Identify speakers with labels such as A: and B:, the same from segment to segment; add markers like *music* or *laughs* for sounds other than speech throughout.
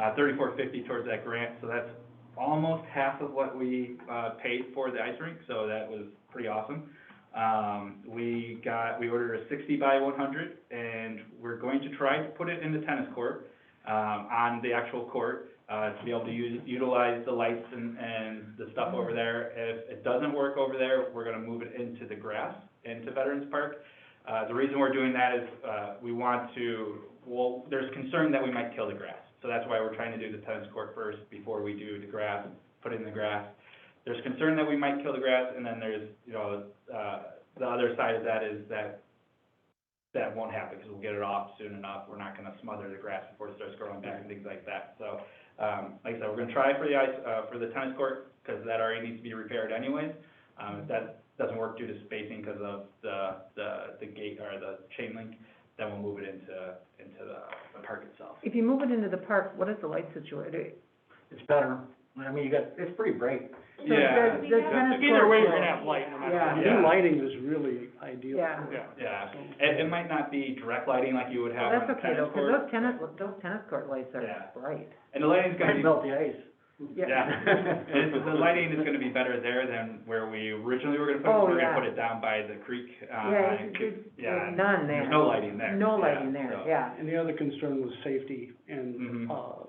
A: uh, thirty-four fifty towards that grant, so that's almost half of what we, uh, paid for the ice rink, so that was pretty awesome. Um, we got, we ordered a sixty by one hundred, and we're going to try to put it in the tennis court, um, on the actual court, uh, to be able to use, utilize the lights and, and the stuff over there. If it doesn't work over there, we're gonna move it into the grass, into Veterans Park, uh, the reason we're doing that is, uh, we want to, well, there's concern that we might kill the grass. So that's why we're trying to do the tennis court first before we do the grass, put in the grass. There's concern that we might kill the grass, and then there's, you know, uh, the other side of that is that that won't happen, because we'll get it off soon enough. We're not gonna smother the grass before it starts growing back and things like that. So, um, like I said, we're gonna try for the ice, uh, for the tennis court, because that already needs to be repaired anyways. Um, if that doesn't work due to spacing because of the, the, the gate or the chain link, then we'll move it into, into the, the park itself.
B: If you move it into the park, what is the light situation?
C: It's better, I mean, you got, it's pretty bright.
B: So
A: Yeah.
B: the- the tennis
D: Either way, you're
B: court-
D: gonna have light no matter
C: Yeah,
D: what.
A: Yeah.
C: new lighting is really ideal.
B: Yeah.
D: Yeah.
A: Yeah, it, it might not be direct lighting like you would
B: Well,
A: have on
B: that's
A: the
B: okay
A: tennis
B: though, because
A: court.
B: those tennis, those tennis court lights
A: Yeah.
B: are bright.
A: And the lighting's gonna
C: Might
A: be,
C: melt the ice.
A: yeah, And the lighting is gonna be better there than where we originally were gonna put it.
B: Oh,
A: We're gonna
B: yeah.
A: put it down by the creek, uh,
B: Yeah,
A: and
B: it's-
A: could-
B: it's-
A: yeah,
B: there's
A: and
B: none there.
A: there's no lighting there.
B: No
A: Yeah,
B: lighting there,
A: so-
B: yeah.
C: And the other concern was safety and,
D: Mm-hmm.
A: Mhm.
C: uh,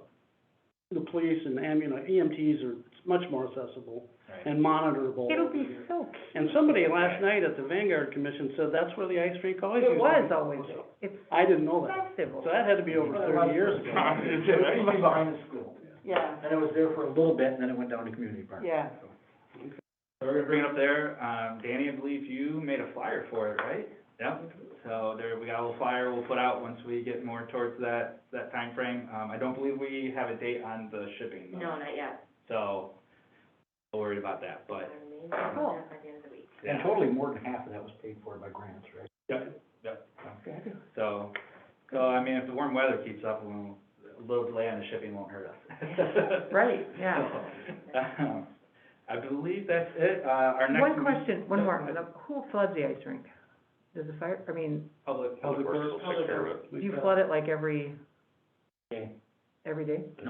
C: the police and ambulance, EMTs E are much more accessible
A: Right.
C: and monitorable.
B: It'll be so
C: And somebody last night at the Vanguard Commission said that's where the ice rink always used
B: It
C: to be.
B: was always, it's
C: I didn't know that,
B: festival.
C: so that had to be over thirty years ago.
A: It's right
E: behind the school,
B: Yeah,
E: and it was there for a little bit, and then it went down to community park.
B: yeah.
A: So we're gonna bring it up there, um, Danny, I believe you made a flyer for it, right? Yep, so there, we got a little flyer we'll put out once we get more towards that, that timeframe. Um, I don't believe we have a date on the shipping though.
F: No, not yet.
A: So, not worried about that, but,
F: Maybe
B: Cool.
F: by the end of the week.
E: And
A: yeah,
E: totally more than half of that was paid for by grants, right?
A: so, so, I mean, if the warm weather keeps up, we'll, a little delay on the shipping won't hurt us.
B: *laughs* Right, yeah.
A: So, um, I believe that's it, uh, our next.
B: One
A: meet-
B: question, one
A: Yeah,
B: more,
A: go ahead.
B: who floods the ice rink? Does the fire, I mean,
A: Public.
C: Public Works will
A: take care of
B: do you flood it like every,
E: Yeah.
B: every day? *laughs*
C: *laughs*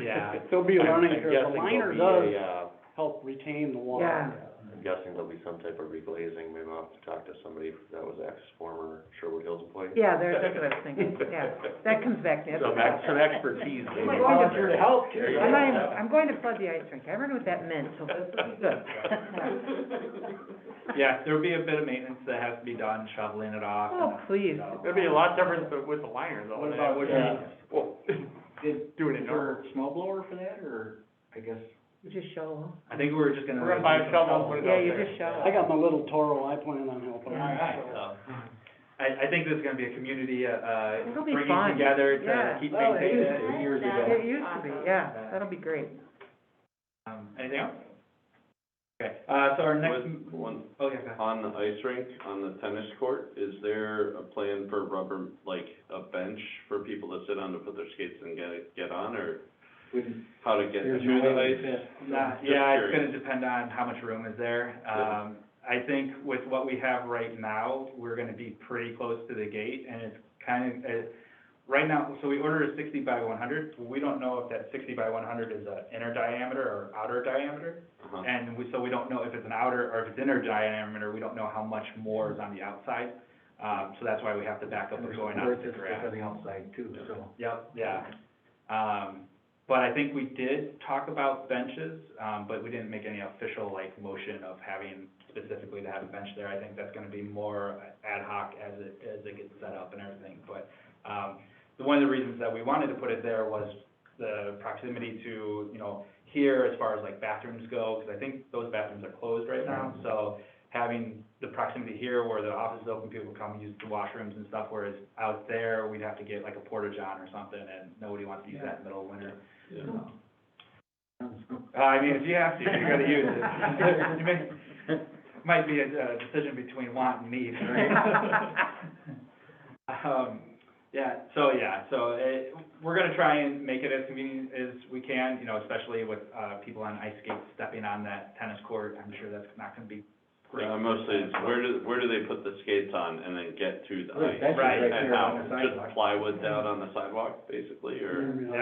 A: Yeah,
C: There'll be a learning
G: I'm
C: curve, the
G: guessing
C: liner
G: there'll be
C: does
G: a, uh,
C: help retain the water.
B: Yeah,
G: I'm guessing there'll be some type of reglazing, maybe I'll have to talk to somebody that was ex-former Sherwood Hills employee.
B: yeah, there, that's what I was thinking, yeah. That comes back
C: *laughs*
B: to me.
G: Some ex, some expertise.
C: You might want to help.
G: There you
B: I'm not even,
G: go.
B: I'm going to flood the ice rink, I wondered what that meant, so this will be good.
A: Yeah, there'll be a bit of maintenance that has to be done, shoveling it off.
B: Oh,
A: and-
B: please.
A: so-
D: It'd be a lot different with- with the liner though.
E: What
D: than
E: about
D: it would be-
E: the-
D: Well,
E: Did,
D: doing it
E: is there
D: normal.
E: a snow blower for that, or, I guess?
B: You just shovel.
A: I think we were just gonna.
D: We're gonna buy a shovel, put it
B: Yeah,
D: out
B: you
D: there.
B: just shovel.
C: I got my little Toro, I plan on helping.
A: Alright, so, I, I think this is gonna be a community, uh, uh,
B: It'll be
A: bringing
B: fun,
A: together to
B: yeah. Oh,
A: keep
E: Well, it
A: maintaining.
E: is. Years ago.
B: It used to be, yeah, that'll be great.
A: Um, anything else? Okay, uh, so our next.
G: With one-
A: Oh, yeah, go ahead.
G: On the ice rink, on the tennis court, is there a plan for rubber, like a bench for people to sit on to put their skates and get, get on, or
E: Wouldn't,
G: how to get
E: there's
G: through
E: no
G: the
E: way
G: ice?
E: to fit.
A: Nah,
G: Just
A: yeah, it's
G: curious.
A: gonna depend on how much room is there.
G: Yeah.
A: Um, I think with what we have right now, we're gonna be pretty close to the gate, and it's kind of, uh, right now, so we ordered a sixty by one hundred, we don't know if that sixty by one hundred is an inner diameter or outer diameter.
G: Uh-huh.
A: And we, so we don't know if it's an outer, or if it's inner diameter, we don't know how much more is on the outside. Um, so that's why we have to back up
E: And
A: and
E: there's
A: going
E: boards
A: out to
E: that stick
A: grab.
E: On the outside too, so.
A: Yep, yeah. Um, but I think we did talk about benches, um, but we didn't make any official like motion of having specifically to have a bench there. I think that's gonna be more ad hoc as it, as it gets set up and everything. But, um, the, one of the reasons that we wanted to put it there was the proximity to, you know, here as far as like bathrooms go, because I think those bathrooms are closed right now. So having the proximity here where the office is open, people come use the washrooms and stuff, whereas out there, we'd have to get like a porta john or something, and nobody wants to use that in the middle of winter. Uh, I mean, if you have to, you're gonna use it. *laughs* You may- Might be a, a decision between want and need, right? *laughs* Um, yeah, so, yeah, so it, we're gonna try and make it as convenient as we can, you know, especially with, uh, people on ice skates stepping on that tennis court. I'm sure that's not gonna be Great.
G: Uh, Mostly, it's where do, where do they put the skates on and then get to the
E: There's
G: ice?
E: benches
A: Right,
E: right
G: And
E: there
G: how,
E: on the sidewalk. Mm-hmm.
G: just plywood down on the sidewalk, basically, or?
C: Yeah.